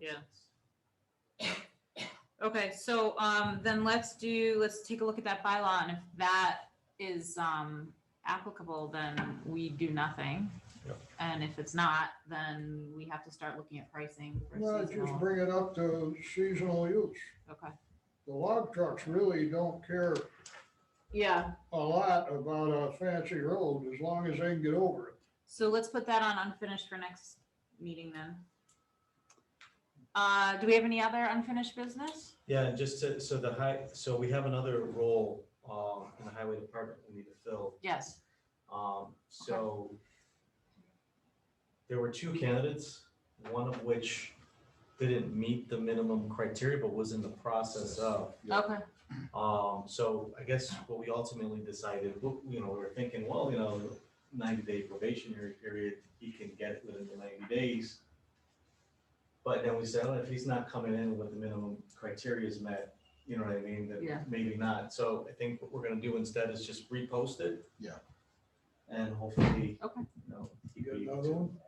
Yeah. Okay, so, um, then let's do, let's take a look at that bylaw, and if that is, um, applicable, then we do nothing. Yeah. And if it's not, then we have to start looking at pricing for No, just seasonal, bring it up to seasonal use. okay. The log trucks really don't care Yeah. a lot about a fancy road as long as they can get over it. So let's put that on unfinished for next meeting then. Uh, do we have any other unfinished business? Yeah, and just to, so the high, so we have another role, um, in the highway department we need to fill, Yes, um, so. There were two candidates, one of which didn't meet the minimum criteria, but was in the process of. Yeah. okay, Um, so I guess what we ultimately decided, w- you know, we were thinking, well, you know, ninety day probationary period, he can get it within the ninety days. But then we said, oh, if he's not coming in with the minimum criteria is met, you know what I mean, Yeah. then maybe not. So I think what we're gonna do instead is just repost it. Yeah. And hopefully, Okay. you know, You he'd got be able another to- one?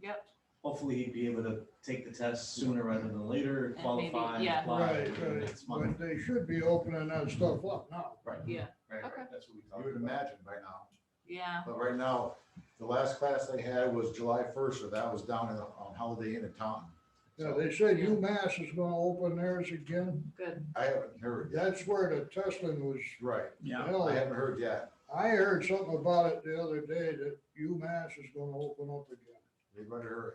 yep, hopefully he'd be able to take the test sooner rather than later, maybe- qualify, and yeah. apply Right, in the right, next month. but they should be opening that stuff up now. Right. yeah, Right, Okay. right, that's what we You thought. would imagine by now, yeah, but right now, the last class they had was July first, so that was down in- on Holiday Inn in Taunton. Yeah, So they said UMass is gonna open theirs again. good, I haven't heard yet, That's where the testing was right, Yeah, held. I haven't heard yet, I heard something about it the other day that UMass is gonna open up again, they better hurry.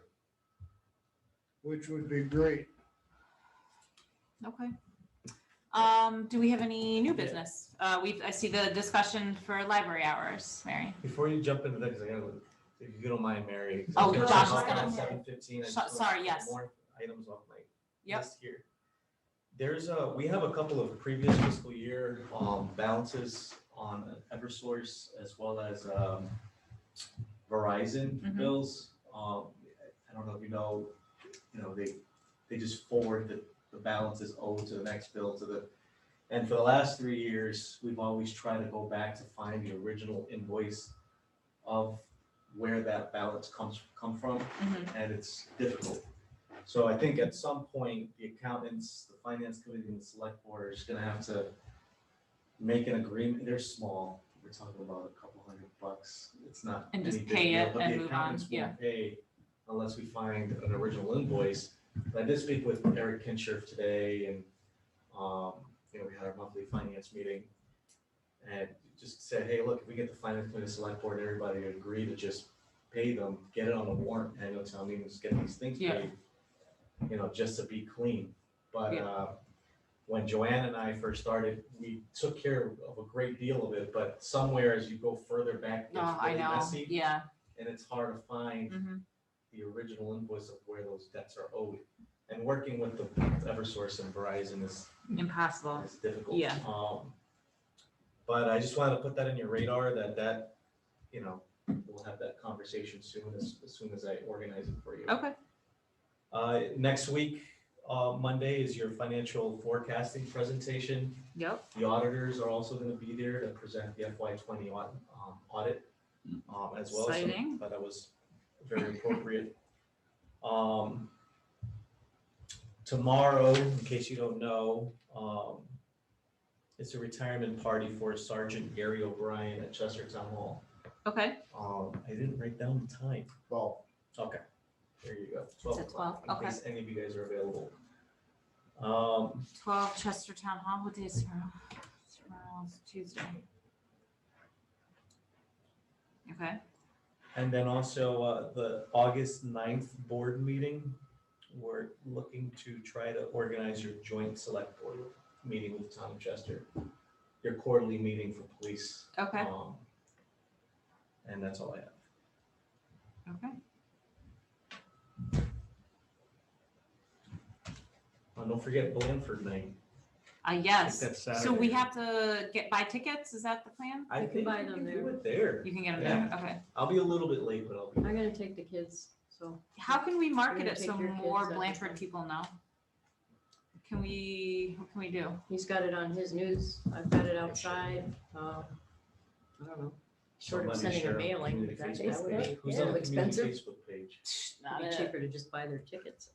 which would be great. okay. Um, do we have any new business? Uh, we, I see the discussion for library hours, Mary. Before you jump into that, because I gotta, if you don't mind, Mary. 'cause Oh, I'm gonna Josh jump is on gonna- Seven fifteen. I So- just wanna sorry, get yes. More items off my Yep, list here. There's a, we have a couple of previous fiscal year, um, balances on Eversource as well as, um, Verizon Mhm. bills. Um, I don't know if you know, you know, they, they just forward the, the balances owed to the next bill to the, and for the last three years, we've always tried to go back to find the original invoice of where that balance comes, come from mhm, and it's difficult. So I think at some point, the accountants, the finance committee, and the select board are just gonna have to make an agreement, they're small, we're talking about a couple hundred bucks, it's not. And just any big pay deal, it but the and move on, accountants won't yeah. Pay unless we find an original invoice, but I did speak with Eric Kinshirf today and, um, you know, we had our monthly finance meeting. And just said, hey, look, if we get the finance committee, select board, and everybody to agree to just pay them, get it on the warrant, annual town meeting, just get these things Yeah. paid. You know, just to be clean, but, Yeah. uh, when Joanne and I first started, we took care of a great deal of it, but somewhere as you go further back, it no, gets Oh, I really know, messy. yeah, And it's hard to find mhm, the original invoice of where those debts are owed. And working with the Eversource and Verizon is, impossible, is difficult. Yeah. Um, But I just wanted to put that in your radar that that, you know, we'll have that conversation soon as, as soon as I organize it for you. okay, Uh, next week, uh, Monday is your financial forecasting presentation. yep, The auditors are also gonna be there to present the FY twenty audit, um, audit, um, as well. So Exciting. I thought that was very appropriate. Um, tomorrow, in case you don't know, um, it's a retirement party for Sergeant Gary O'Brien at Chester Town Hall. okay, Um, I didn't write down the time. Well, Okay, there you go, twelve at o'clock, 12, in case any of you guys are available. Um, twelve Chester Town Hall, what day is tomorrow? Tomorrow's Tuesday. Okay, And then also uh, the August 9th board meeting, we're looking to try to organize your joint select board meeting with the town of Chester. Your quarterly meeting for police. okay, um, And that's all I have. okay. Oh, don't forget Blandford night. Uh, I think yes, that's so we Saturday. have to get, buy tickets, is that the plan? I You can think buy we them can do there. it there. You can get them there, okay. I'll be a little bit late, but I'll be. I'm gonna take the kids, so. How can we market gonna it take so your kids more out to Blanford lunch. people know? Can we, what can we do? He's got it on his news, I've got it outside, uh, I don't know. Short of somebody sending share a on the mailing, community but Facebook that that would page. be Who's yeah, on the community expensive. Facebook page? It'd be cheaper to just buy their tickets.